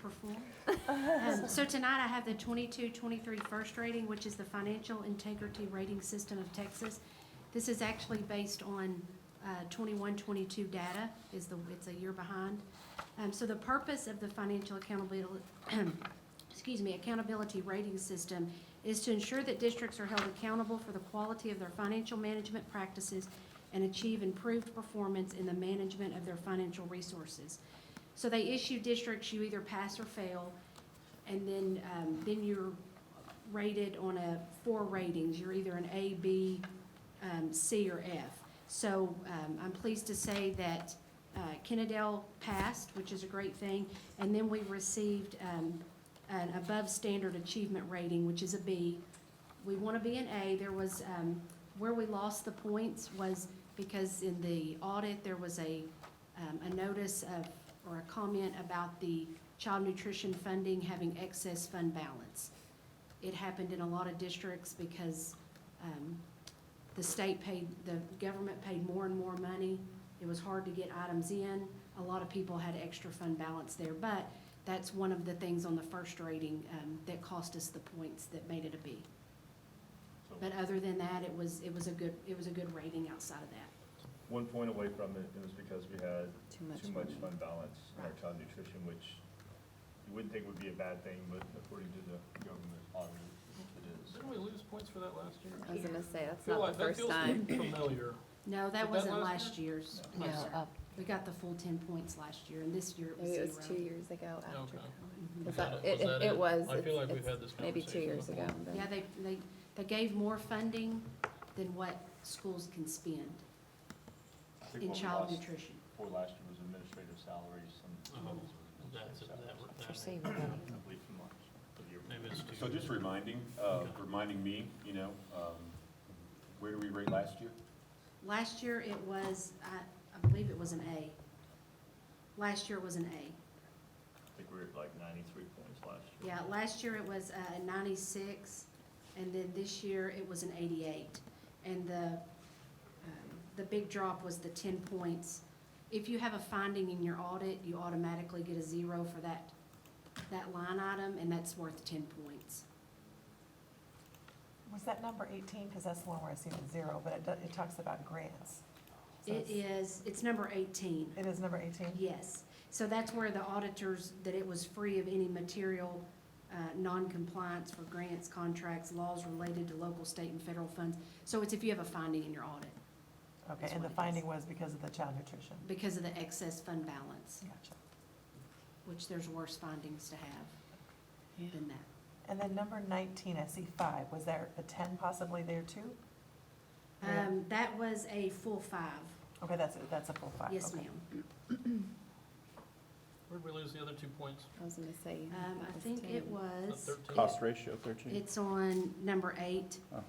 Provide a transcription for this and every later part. perform. Mm-hmm. Um, So tonight I have the 22-23 first rating, which is the Financial Integrity Rating System of Texas. This is actually based on 21-22 data, is the, it's a year behind. Um, So the purpose of the financial accountability, excuse me, accountability rating system is to ensure that districts are held accountable for the quality of their financial management practices and achieve improved performance in the management of their financial resources. So they issue districts, you either pass or fail, and then, um, then you're rated on a, four ratings, you're either an A, B, um, C, or F. So, um, I'm pleased to say that, uh, Kennedale passed, which is a great thing, and then we received, um, an above-standard achievement rating, which is a B. We want to be an A, there was, um, where we lost the points was because in the audit, there was a, um, a notice of, or a comment about the child nutrition funding having excess fund balance. It happened in a lot of districts because, um, the state paid, the government paid more and more money. It was hard to get items in. A lot of people had extra fund balance there, but that's one of the things on the first rating, um, that cost us the points that made it a B. But other than that, it was, it was a good, it was a good rating outside of that. One point away from it, it was because we had Too much too much money. fund balance in our Right. child nutrition, which you wouldn't think would be a bad thing, but according to the government audit, it is. Didn't we lose points for that last year? I was gonna say, that's Feel not like- the first time. That feels familiar. No, that that wasn't last last year's. No. No, No, sir. up, We got the full ten points last year, and this year it was maybe it zero. was two years ago after. Okay. Mhm. Is Was that, that- it, was that it- it it? was, I feel it's- like we've it's had this maybe two conversation years ago. before. then. Yeah, they, they, they gave more funding than what schools can spend I think in what we child lost nutrition. For last year was administrative salaries, some. Oh, schools were That's, administrative that, salaries, For that, saving money. I believe from last year. maybe it's two. So just reminding, uh, Okay. reminding me, you know, um, where do we rate last year? Last year it was, I, I believe it was an A. Last year it was an A. I think we were at like ninety-three points last year. Yeah, last year it was uh, a ninety-six, and then this year it was an eighty-eight. And the, um, the big drop was the ten points. If you have a finding in your audit, you automatically get a zero for that, that line item, and that's worth ten points. Was that number eighteen? Because that's the one where I see the zero, but it, do- it talks about grants. So It it's- is, it's number eighteen. It is number eighteen? Yes, so that's where the auditors, that it was free of any material uh, non-compliance for grants, contracts, laws related to local, state, and federal funds. So it's if you have a finding in your audit Okay, That's and what the it is. finding was because of the child nutrition. because of the excess fund balance, Gotcha. which there's worse findings to have than that. And then number nineteen, I see five. Was there a ten possibly there too? Yeah. Um, That was a full five, Okay, that's, a- that's a full five. yes okay. ma'am. Where'd we lose the other two points? I was gonna say. Um, I was think it 10. Uh, was. Thirteen? Cost ratio Hmm. thirteen. It's on number eight. Oh.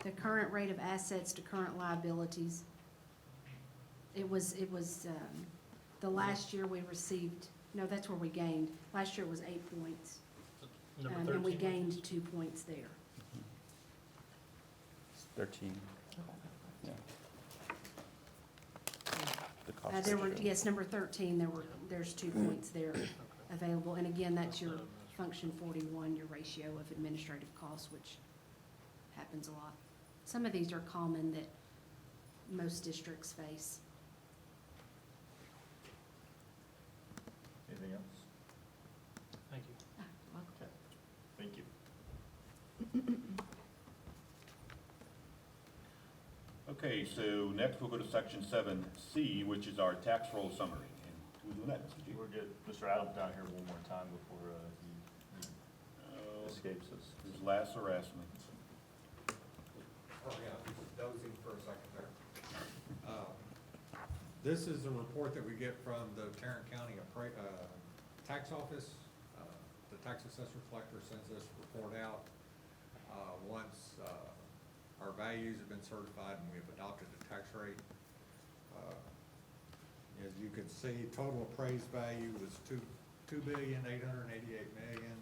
The current rate of assets to current liabilities. It was, it was, um, the Hmm. last year we received, no, that's where we gained. Last year was eight points. Number um, And we thirteen. gained two points there. It's Thirteen, Okay. yeah. The Uh, cost there were, ratio. yes, number thirteen, there were, there's two points there Okay. available. And again, that's your the- function forty-one, your ratio of administrative costs, which happens a lot. Some of these are common that most districts face. Anything else? Thank you. Okay, thank you. Okay, so next we'll go to section seven C, which is our tax roll summary. And who's doing that, Mr. G? We'll get Mr. Adams down here one more time before uh, he he Uh, escapes us. His last harassment. Oh, yeah, dozing for a second there. Uh, This is a report that we get from the Tarrant County Appra- uh, Tax Office. Uh, The tax assessor collector sends this report out, uh, once, uh, our values have been certified and we've adopted the tax rate. Uh, As you can see, total appraised value was two, two billion, eight hundred and eighty-eight million.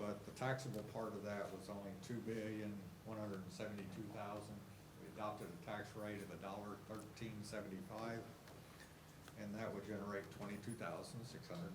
But the taxable part of that was only two billion, one hundred and seventy-two thousand. We adopted a tax rate of a dollar thirteen seventy-five, and that would generate twenty-two thousand, six hundred